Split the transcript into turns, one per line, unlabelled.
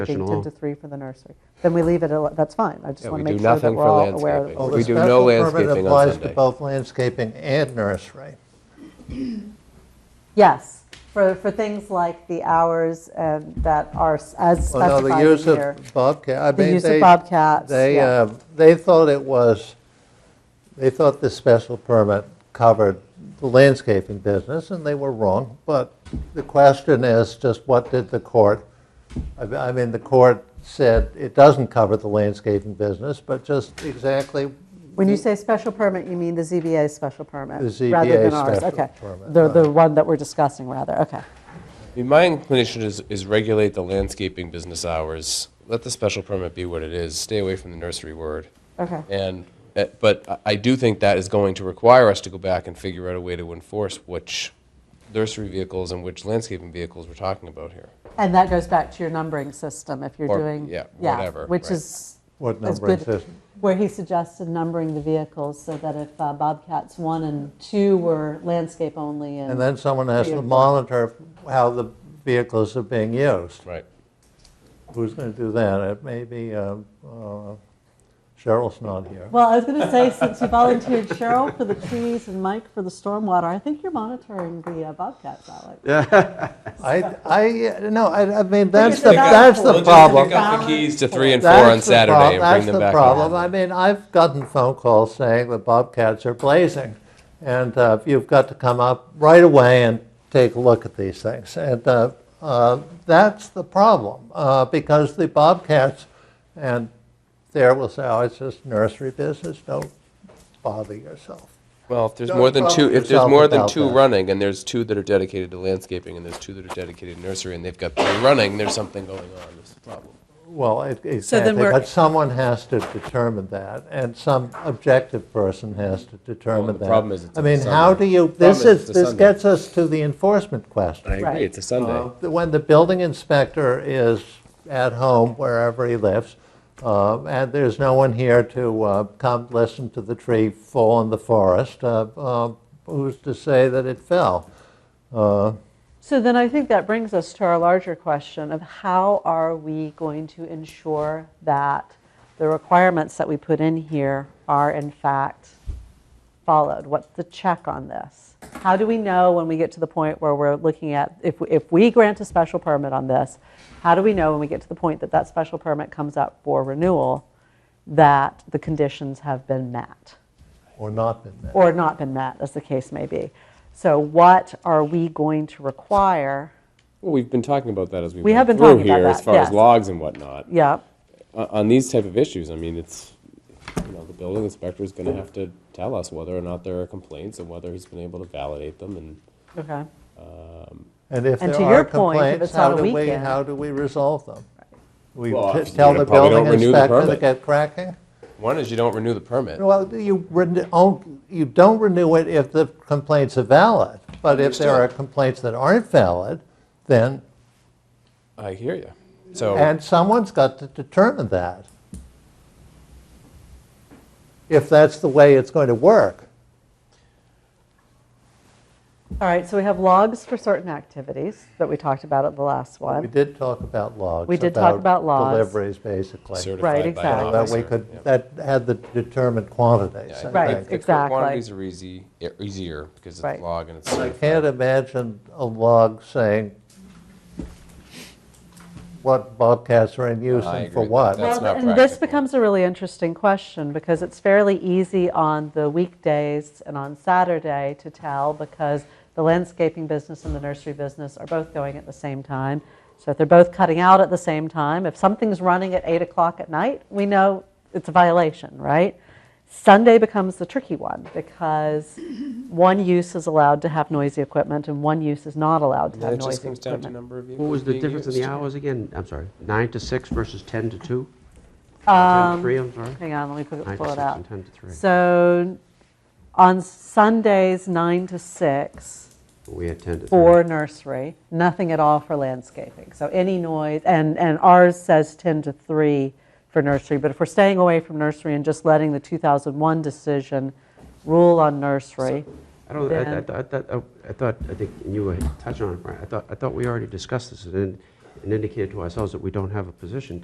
Take
Discussion
10
all.
to 3 for the nursery. Then we leave it, al- that's fine. I just
Yeah,
want
we
to make
do
sure that
nothing
we're
for
all aware.
landscaping.
of
Well,
it.
we
the
do no
special permit
landscaping on
applies to
Sunday.
both landscaping and nursery.
Yes, for, for things like the hours and that are s- as
Well, no,
specified
the
in
use
here.
of Bobcat, I
The
mean,
use of
they,
bobcats,
they,
yeah.
uh, they thought it was, they thought the special permit covered the landscaping business, and they were wrong. But the question is just what did the court, I mean- I mean, the court said it doesn't cover the landscaping business, but just exactly
When you say special permit, you mean the ZBA special permit?
The
Rather
ZBA
than ours,
special
okay.
permit,
The, the one that we're discussing, rather, okay.
I mean, My inclination is, is regulate the landscaping business hours, let the special permit be what it is, stay away from the nursery word.
Okay.
And, eh, but I- I do think that is going to require us to go back and figure out a way to enforce which nursery vehicles and which landscaping vehicles we're talking about here.
And that goes back to your numbering system, if you're
Or-
doing.
yeah, whatever,
Which
right.
is.
What
is
numbering
good,
system?
Where he suggested numbering the vehicles so that if uh, Bobcats 1 and 2 were landscape only
And
and,
then someone has to
Vehicle.
monitor how the vehicles are being used.
Right.
Who's going to do that? It may be, uh, uh, Cheryl's not here.
well, I was going to say, since you volunteered Cheryl for the trees and Mike for the stormwater, I think you're monitoring the uh, Bobcats, Alex.
I, I, no, I, I mean, that's
it's
the,
about-
that's the problem.
Pick up the keys to three and four
That's
on
the
Saturday
prob-
and bring them
That's
back.
the problem. I mean, I've gotten phone calls saying the bobcats are blazing. And uh, you've got to come up right away and take a look at these things. And uh, uh, that's the problem uh, because the bobcats, and there will say, oh, it's just nursery business. Don't bother yourself.
Well, if there's
Don't
more than
bother
two, if there's
yourself
more than
about
two
that.
running, and there's two that are dedicated to landscaping, and there's two that are dedicated to nursery, and they've got three running, there's something going on, that's the problem.
Well, it-
then
exactly,
we're-
but someone has to determine that, and some objective person has to
Well,
determine
the
that.
problem is it's
I
on
mean,
Sunday.
how do you,
Problem
this
is
is,
it's a
this
Sunday.
gets us to the enforcement question.
Right.
It's a Sunday.
Uh, When the building inspector is at home, wherever he lives, uh, and there's no one here to uh, come listen to the tree fall in the forest, uh, uh, who's to say that it fell?
So then I think that brings us to our larger question of how are we going to ensure that the requirements that we put in here are in fact followed? What's the check on this? How do we know when we get to the point where we're looking at, if, if we grant a special permit on this, how do we know when we get to the point that that special permit comes up for renewal, that the conditions have been met?
Or not been met?
or not been met, as the case may be. So what are we going to require?
Well, we've been talking about that as we,
We
went
have been
through
talking about
here,
that,
as far
yes.
as logs and whatnot.
Yeah,
O- on these type of issues, I mean, it's you know the building inspector is going
Mm-hmm.
to have to tell us whether or not there are complaints and whether he's been able to validate them. And
okay.
And if
And
there
to your point,
are
if
complaints,
it's on
how
a
do we,
weekend-
how do we resolve them? We
Well,
t-
you
tell the
probably don't
building
renew the
inspector to
permit.
get cracking?
One is you don't renew the permit.
Well, you renew, oh, you don't renew it if the complaints are valid, but if there are
Understood.
complaints that aren't valid, then,
I hear you. So.
and someone's got to determine that. If that's the way it's going to work.
All right, so we have logs for certain activities that we talked about at the last
We
one.
did talk about logs.
We did talk about logs.
Deliveries, basically.
certified
Right,
by an
exactly.
That we
officer,
could,
yeah.
that had the determined quantities. I
Yeah, I
Right,
think.
think the
exactly.
Quantities are easy, e- easier because it's
Right.
log and it's
I
certified.
can't imagine a log saying what bobcats are in use
I
and
agree
for
with
what.
that. That's
Well,
not
and this
practical.
becomes a really interesting question because it's fairly easy on the weekdays and on Saturday to tell because the landscaping business and the nursery business are both going at the same time. So if they're both cutting out at the same time, if something's running at eight o'clock at night, we know it's a violation, right? Sunday becomes the tricky one because one use is allowed to have noisy equipment and one use is not allowed to
Yeah,
have
It just
noisy
comes down to
equipment.
number of vehicles
What was the
being
difference in
used.
the hours again? I'm sorry, nine to six versus 10 to two? 10 to three, I'm sorry?
Hang on, let me pull
Nine
it-
to
pull it
six
out.
and 10 to three.
So on Sundays, 9 to 6,
We had 10 to three.
for nursery, nothing at all for landscaping. So any noise, and, and ours says 10 to 3 for nursery, but if we're staying away from nursery and just letting the 2001 decision rule on nursery,
I don't, I- I
then-
thought- I thought, I thought, I think, and you were touching on it, Brian, I thought, I thought we already discussed this, and and indicated to ourselves that we don't have a position